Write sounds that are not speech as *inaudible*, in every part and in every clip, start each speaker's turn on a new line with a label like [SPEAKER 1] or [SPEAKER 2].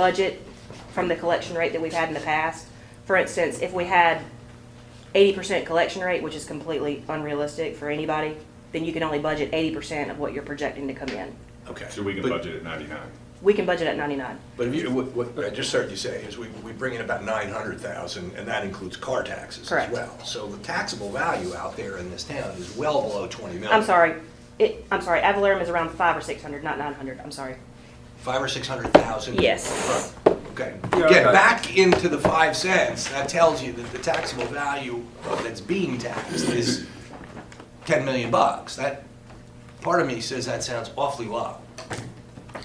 [SPEAKER 1] budget from the collection rate that we've had in the past. For instance, if we had eighty percent collection rate, which is completely unrealistic for anybody, then you can only budget eighty percent of what you're projecting to come in.
[SPEAKER 2] Okay.
[SPEAKER 3] So we can
[SPEAKER 2] But-
[SPEAKER 3] budget at ninety-nine.
[SPEAKER 1] We can budget at ninety-nine.
[SPEAKER 2] But if you, what, what I just heard you say is we, we bring in about nine hundred thousand, and that includes car taxes as
[SPEAKER 1] Correct.
[SPEAKER 2] well. So the taxable value out there in this town is well below twenty million.
[SPEAKER 1] I'm sorry, it, I'm sorry, ad valorem is around five or six hundred, not nine hundred, I'm sorry.
[SPEAKER 2] Five or six hundred thousand?
[SPEAKER 1] Yes.
[SPEAKER 2] Okay,
[SPEAKER 3] Yeah,
[SPEAKER 2] get
[SPEAKER 3] okay.
[SPEAKER 2] back into the five cents, that tells you that the taxable value that's being taxed is ten million bucks. That, part of me says that sounds awfully low.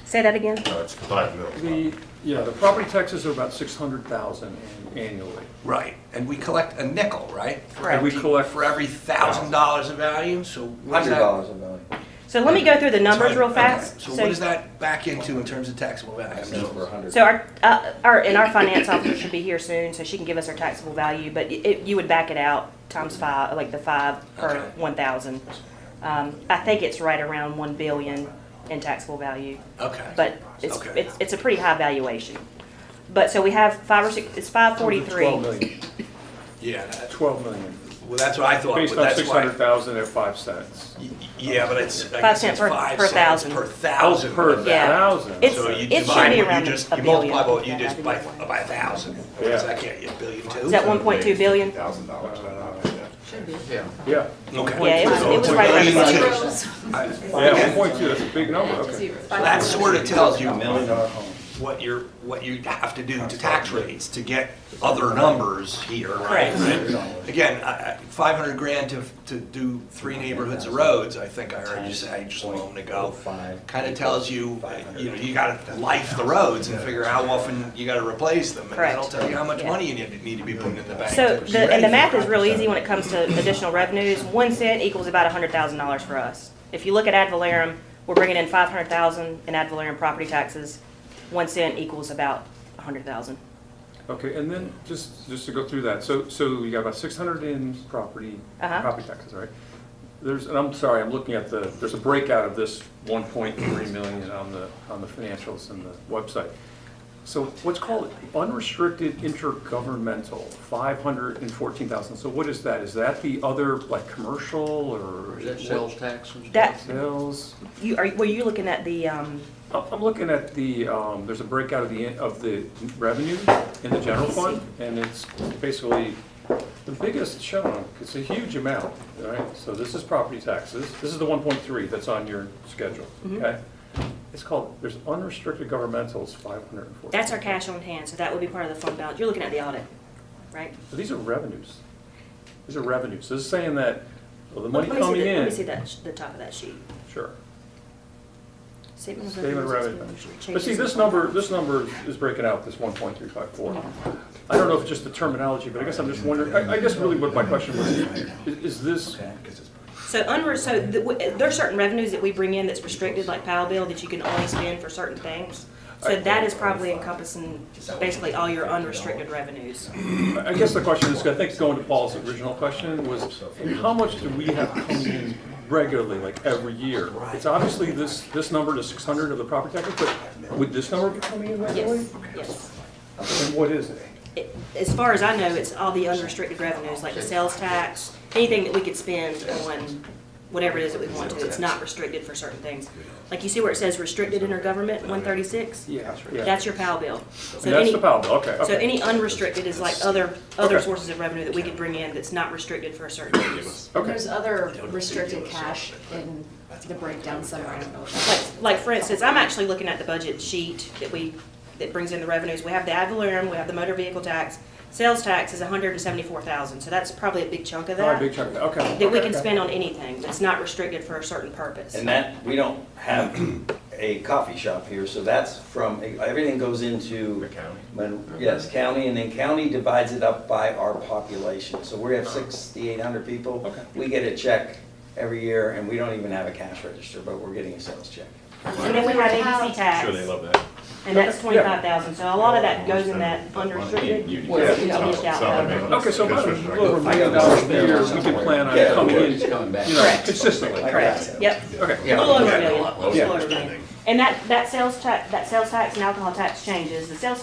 [SPEAKER 1] Say that again?
[SPEAKER 3] No, Oh, it's five million.
[SPEAKER 4] The, yeah, the property taxes are about six hundred thousand annually.
[SPEAKER 2] Right. And we collect a nickel, right? For
[SPEAKER 1] Correct.
[SPEAKER 4] And we
[SPEAKER 2] every-
[SPEAKER 4] collect-
[SPEAKER 2] For every thousand dollars of value, so. what's
[SPEAKER 5] Hundred
[SPEAKER 2] that-
[SPEAKER 5] dollars a million.
[SPEAKER 1] So let me go through the numbers real
[SPEAKER 2] Okay,
[SPEAKER 1] fast.
[SPEAKER 2] So what does that back into in terms of taxable value?
[SPEAKER 5] That's over a hundred.
[SPEAKER 1] So our, uh, our, and our finance officer should be here soon, so she can give us our taxable value, but it, you would back it out times five, like the five per
[SPEAKER 2] Okay.
[SPEAKER 1] one thousand. Um, I think it's right around one billion in taxable value,
[SPEAKER 2] Okay.
[SPEAKER 1] but it's,
[SPEAKER 2] Okay.
[SPEAKER 1] it's, it's a pretty high valuation. But, so we have five or six, it's five
[SPEAKER 4] Twelve
[SPEAKER 1] forty-three.
[SPEAKER 4] million,
[SPEAKER 2] Yeah, that-
[SPEAKER 4] twelve million,
[SPEAKER 2] well, that's what I thought,
[SPEAKER 4] based
[SPEAKER 2] but
[SPEAKER 4] on
[SPEAKER 2] that's
[SPEAKER 4] six
[SPEAKER 2] why.
[SPEAKER 4] hundred thousand at five cents.
[SPEAKER 2] Y- Yeah, but it's, I
[SPEAKER 1] Five
[SPEAKER 2] guess
[SPEAKER 1] cents
[SPEAKER 2] it's
[SPEAKER 1] per-
[SPEAKER 2] five
[SPEAKER 1] per
[SPEAKER 2] cents
[SPEAKER 1] thousand.
[SPEAKER 2] per thousand.
[SPEAKER 4] Oh, Per
[SPEAKER 1] Yeah.
[SPEAKER 4] thousand.
[SPEAKER 1] It's-
[SPEAKER 2] So you
[SPEAKER 1] it should
[SPEAKER 2] divide,
[SPEAKER 1] be
[SPEAKER 2] what
[SPEAKER 1] around
[SPEAKER 2] you just,
[SPEAKER 1] a
[SPEAKER 2] you multiply
[SPEAKER 1] billion.
[SPEAKER 2] what you just by,
[SPEAKER 1] Yeah.
[SPEAKER 2] by a thousand. What does
[SPEAKER 4] Yeah.
[SPEAKER 2] that get you, a billion two?
[SPEAKER 1] Is that one point two billion? Uh,
[SPEAKER 3] Thousand dollars.
[SPEAKER 4] Yeah,
[SPEAKER 2] Okay.
[SPEAKER 1] Yeah, it was- it was
[SPEAKER 2] So
[SPEAKER 1] right around
[SPEAKER 2] it's a billion
[SPEAKER 1] six.
[SPEAKER 2] two.
[SPEAKER 6] Zeros.
[SPEAKER 4] yeah, one point two, that's a big number, okay.
[SPEAKER 6] Zeros.
[SPEAKER 2] So That sort of tells you
[SPEAKER 5] A million dollar home.
[SPEAKER 2] what you're, what you have to do to tax rates to get other numbers here, right? Again, I- I- 500 grand to, to do three neighborhoods of roads, I think I heard you say just a moment ago. Kind of tells you, you know, you gotta life the roads and figure out how often you gotta replace them. And that'll
[SPEAKER 1] Correct.
[SPEAKER 2] tell you how much
[SPEAKER 1] Yeah.
[SPEAKER 2] money you need need to be putting in the bank.
[SPEAKER 1] So,
[SPEAKER 2] to be
[SPEAKER 1] the, and
[SPEAKER 2] ready
[SPEAKER 1] the
[SPEAKER 2] for
[SPEAKER 1] math
[SPEAKER 2] that.
[SPEAKER 1] is real easy when it comes to additional revenues. One cent equals about hundred thousand dollars for us. If you look at ad valorem, we're bringing in five hundred thousand in ad valorem property taxes. One cent equals about a hundred thousand.
[SPEAKER 4] Okay, and then just, just to go through that, so, so we got about six hundred in property,
[SPEAKER 1] Uh-huh.
[SPEAKER 4] property taxes, right? There's, and I'm sorry, I'm looking at the, there's a breakout of this one point three million on the, on the financials and the website. So what's called unrestricted intergovernmental, five hundred and fourteen thousand, so what is that? Is that the other, like, commercial or?
[SPEAKER 7] Is that sales tax and stuff?
[SPEAKER 1] That,
[SPEAKER 4] Sales?
[SPEAKER 1] you, are, were you looking at the, um,
[SPEAKER 4] I'm I'm looking at the, um, there's a breakout of the, of the revenue in the general fund, and it's basically the biggest shown, it's a huge amount, all right? So this is property taxes, this is the one point three that's on your schedule,
[SPEAKER 1] Mm-hmm.
[SPEAKER 4] okay? It's called, there's unrestricted governmentals, five hundred and forty.
[SPEAKER 1] that's our cash on hand, so that would be part of the fund balance. You're looking at the audit, right?
[SPEAKER 4] These are revenues, these are revenues, this is saying that, well, the
[SPEAKER 1] Let
[SPEAKER 4] money
[SPEAKER 1] me see
[SPEAKER 4] coming
[SPEAKER 1] the-
[SPEAKER 4] in.
[SPEAKER 1] Let me see that, sh- the top of that sheet.
[SPEAKER 4] Sure.
[SPEAKER 1] Statement of
[SPEAKER 4] Statement of revenue.
[SPEAKER 1] expenses, changes
[SPEAKER 4] But see,
[SPEAKER 1] in
[SPEAKER 4] this
[SPEAKER 1] fund
[SPEAKER 4] number, this number is breaking out, this one point three five four. I don't know if it's just the terminology, but I guess I'm just wondering, I, I guess really what my question was, is, is this,
[SPEAKER 1] So under, so the- w- there are certain revenues that we bring in that's restricted, like power bill, that you can only spend for certain things. So that is probably encompassing basically all your unrestricted revenues.
[SPEAKER 4] I guess the question is, I think going to Paul's original question was, how much do we have coming in regularly, like every year? It's obviously this, this number, the six hundred of the property tax, but would this number be coming in regularly?
[SPEAKER 1] Yes, yes.
[SPEAKER 4] And what is it?
[SPEAKER 1] It- As far as I know, it's all the unrestricted revenues, like the sales tax, anything that we could spend on whatever it is that we want to. It's not restricted for certain things. Like you see where it says restricted intergovernment, one thirty-six?
[SPEAKER 4] Yeah, yeah.
[SPEAKER 1] That's your power bill. So
[SPEAKER 4] And That's
[SPEAKER 1] any-
[SPEAKER 4] the pound, okay,
[SPEAKER 1] So
[SPEAKER 4] okay,
[SPEAKER 1] any unrestricted is like other, other
[SPEAKER 4] Okay.
[SPEAKER 1] sources of revenue that we could bring in that's not restricted for a certain use.
[SPEAKER 4] okay.
[SPEAKER 6] There's other restricted cash in the breakdown somewhere. I don't know what that is.
[SPEAKER 1] Like, like for instance, I'm actually looking at the budget sheet that we, that brings in the revenues. We have the ad valorem, we have the motor vehicle tax. Sales tax is hundred and seventy-four thousand, so that's probably a big chunk of
[SPEAKER 4] All right,
[SPEAKER 1] that.
[SPEAKER 4] big chunk of that, okay.
[SPEAKER 1] That we
[SPEAKER 4] okay,
[SPEAKER 1] can
[SPEAKER 4] okay.
[SPEAKER 1] spend on anything that's not restricted for a certain purpose.
[SPEAKER 5] And that, we don't *clears throat* have a coffee shop here, so that's from, everything goes into.
[SPEAKER 3] The county?
[SPEAKER 5] Mon-
[SPEAKER 1] Mm-hmm.
[SPEAKER 5] Yes, county, and then county divides it up by our population. So we have sixty-eight hundred people.
[SPEAKER 4] Okay.
[SPEAKER 5] We get a check every year, and we don't even have a cash register, but we're getting a sales check.
[SPEAKER 1] And then we have ABC tax,
[SPEAKER 3] Sure they love that.
[SPEAKER 1] and that's twenty-five thousand, so a lot of that goes in that
[SPEAKER 3] You-
[SPEAKER 1] unrestricted.
[SPEAKER 3] you-
[SPEAKER 1] was
[SPEAKER 3] yeah,
[SPEAKER 1] dished
[SPEAKER 3] it's not- it's not
[SPEAKER 1] out.
[SPEAKER 3] like-
[SPEAKER 4] Okay, so about a
[SPEAKER 3] That's
[SPEAKER 4] little over a
[SPEAKER 3] right.
[SPEAKER 4] million dollars a year, we can plan on
[SPEAKER 5] Yeah.
[SPEAKER 4] coming
[SPEAKER 7] It's
[SPEAKER 4] in,
[SPEAKER 7] coming back.
[SPEAKER 4] you know,
[SPEAKER 1] Correct.
[SPEAKER 4] consistently.
[SPEAKER 5] Like
[SPEAKER 1] Correct,
[SPEAKER 5] that.
[SPEAKER 1] yep.
[SPEAKER 4] Okay.
[SPEAKER 1] A little over a million, a little over a million. And that, that sales tax, that sales tax and alcohol tax changes. The sales